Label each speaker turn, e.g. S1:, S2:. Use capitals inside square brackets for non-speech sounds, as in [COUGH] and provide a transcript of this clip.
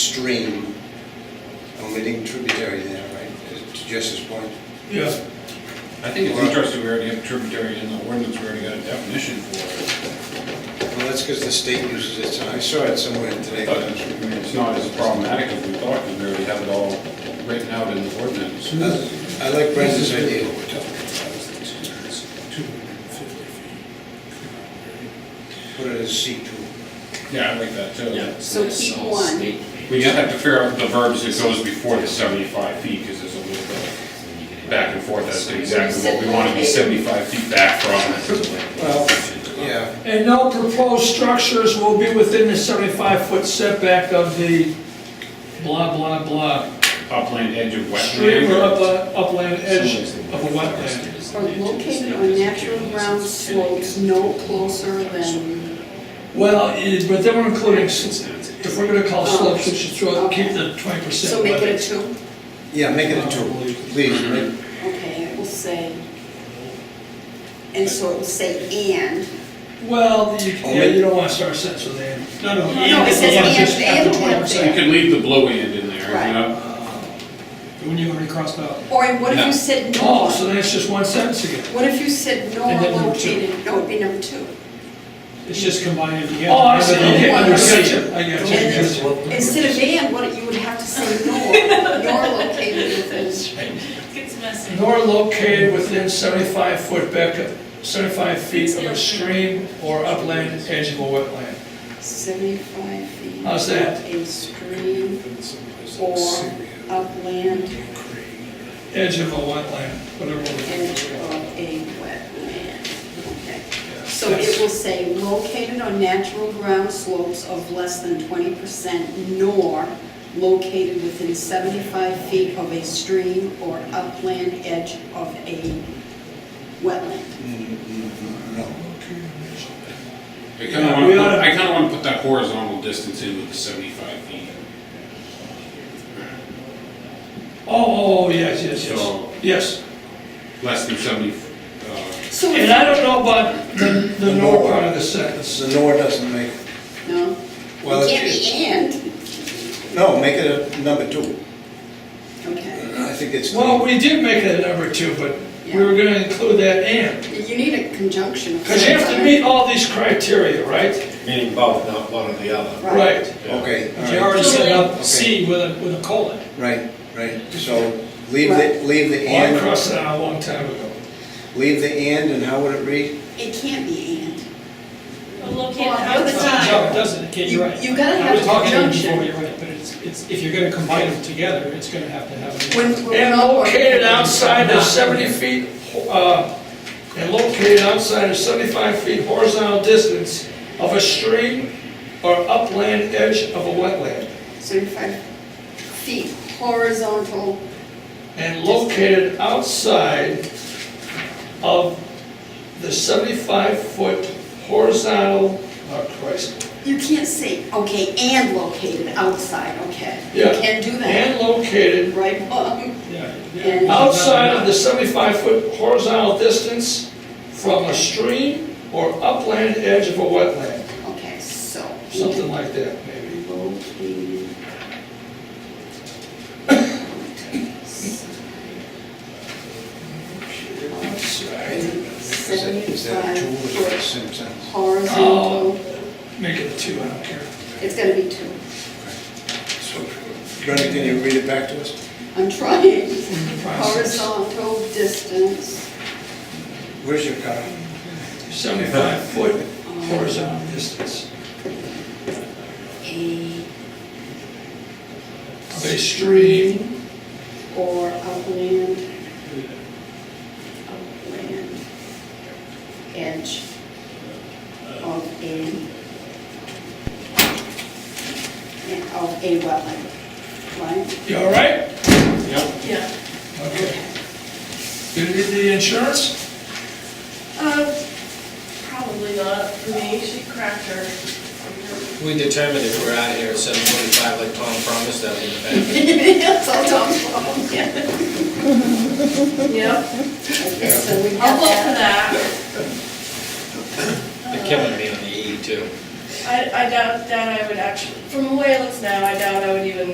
S1: stream, omitting tributary there, right, to Jess's point?
S2: Yeah.
S3: I think it's interesting, we already have tributary in the ordinance, we already got a definition for it.
S1: Well, that's because the state uses it, so I saw it somewhere today.
S3: But it's- I mean, It's not as problematic as we thought, because we already have it all written out in the ordinance.
S1: Uh, I like Brenda's idea. Put it as C two.
S3: Yeah, I like that too.
S4: So keep one.
S3: We just have to figure out the verbs that goes before the 75 feet, because there's a little bit back and forth as to exactly what we want to be 75 feet back from.
S1: Well, yeah,
S2: And no proposed structures will be within the 75-foot setback of the blah, blah, blah,
S3: Upland edge of
S2: stream or up-
S3: wetland.
S2: upland edge of a wetland.
S4: Are located on natural ground slopes no closer than,
S2: Well, eh, but then we're including, s- if we're gonna call slopes, we should throw, keep the 20%.
S4: so make it a
S2: limit.
S4: two?
S1: yeah, make it a two, please, make-
S4: Okay, it will say, and so it will say and.
S2: Well, you, yeah, you don't wanna start a sentence with and. No, no.
S4: No, it says and-
S2: just have
S4: and
S2: the
S4: have
S2: 20%.
S3: You can leave the blue end in there, you know?
S2: When you already crossed out.
S4: Or and what if you said
S2: Oh,
S4: no?
S2: so then it's just one sentence again.
S4: What if you said no
S5: And
S4: or
S5: then number two.
S4: located, no, it'd be number two.
S5: It's just combining together.
S2: Oh, I see, okay, I got
S4: Yeah.
S2: you, I got you.
S4: And Instead of and, what, you would have to say nor,
S2: [LAUGHS]
S4: nor located within.
S6: Gets messy.
S2: nor located within 75 foot back, 75 feet of a stream or upland edge of a wetland.
S4: Seventy-five feet.
S2: How's that?
S4: of A stream or upland
S2: Edge of a wetland, whatever. we're
S4: edge
S2: doing.
S4: of a wetland. Okay. So it will say located on natural ground slopes of less than twenty percent nor located within seventy-five feet of a stream or upland edge of a wetland.
S3: I kind of
S2: We oughta-
S3: want, I kind of want to put that horizontal distance in with the 75 feet.
S2: Oh, oh, yes, yes,
S3: So-
S2: yes, yes.
S3: Less than 70, uh,
S4: So
S2: And
S4: if,
S2: I don't know about the, the nor part of the sentence.
S1: so nor doesn't make,
S4: no,
S1: well,
S4: it can't
S1: it-
S4: be and,
S1: no, make it a number two.
S4: okay.
S1: I think it's.
S2: Well, we did make it a number two, but we were gonna include that
S1: Uh.
S2: and.
S4: You need a conjunction. of
S2: Because you have to meet all these criteria, right?
S7: Meaning both, not one or the other.
S4: Right.
S1: Okay,
S2: You
S1: all right,
S2: already set up
S1: Okay.
S2: C with a, with a colon.
S1: right, right, so leave the, leave the
S2: Oh, I
S1: and,
S2: crossed that out a long time ago.
S1: leave the and, and how would it read?
S4: It can't be and.
S6: Located
S4: Well, I would
S6: outside.
S4: say-
S5: No, it doesn't, yeah, you're
S4: You-
S5: right.
S4: you gotta
S5: I
S4: have a
S5: was talking to you
S4: conjunction.
S5: before, You're right, but it's, it's, if you're gonna combine them together, it's gonna have to have. a-
S4: When-
S2: And located outside of 70 feet, uh, and located outside of 75 feet horizontal distance of a stream or upland edge of a wetland,
S4: 75 feet horizontal,
S2: and located outside of the 75-foot horizontal, oh Christ,
S4: you can't say, okay, and located outside, okay? You
S2: Yeah.
S4: can do that,
S2: and located
S4: right, Bob?
S5: Yeah.
S4: And-
S2: outside of the 75-foot horizontal distance from a stream or upland edge of a wetland,
S4: Okay, so.
S2: something like that, maybe.
S4: Located.
S1: Is that- is that a two or is it a
S4: 75 foot
S1: same sentence?
S2: Oh.
S4: horizontal,
S2: Make it a two, I don't care.
S4: it's gonna be two.
S1: So, Brenda, can you read it back to us?
S4: I'm trying.
S2: Process.
S4: Horizontal distance,
S1: Where's your car?
S2: Seventy-five foot horizontal distance
S4: a,
S2: of a stream
S4: or upland, upland edge of a, of a wetland, right? [LAUGHS]
S2: You all right?
S6: Yeah.
S2: Okay. You need the insurance?
S6: Um, probably not, for me, she cracked her.
S7: We determined if we're out of here at seven forty-five, like Tom promised, that would be better.
S4: That's all Tom's fault, [LAUGHS] yeah.
S6: Yep,
S4: Okay, so we have
S6: I'll look for
S4: that.
S6: that.
S7: They're killing me on the E too.
S6: I, I doubt, doubt I would actually, from the way it looks now, I doubt I would even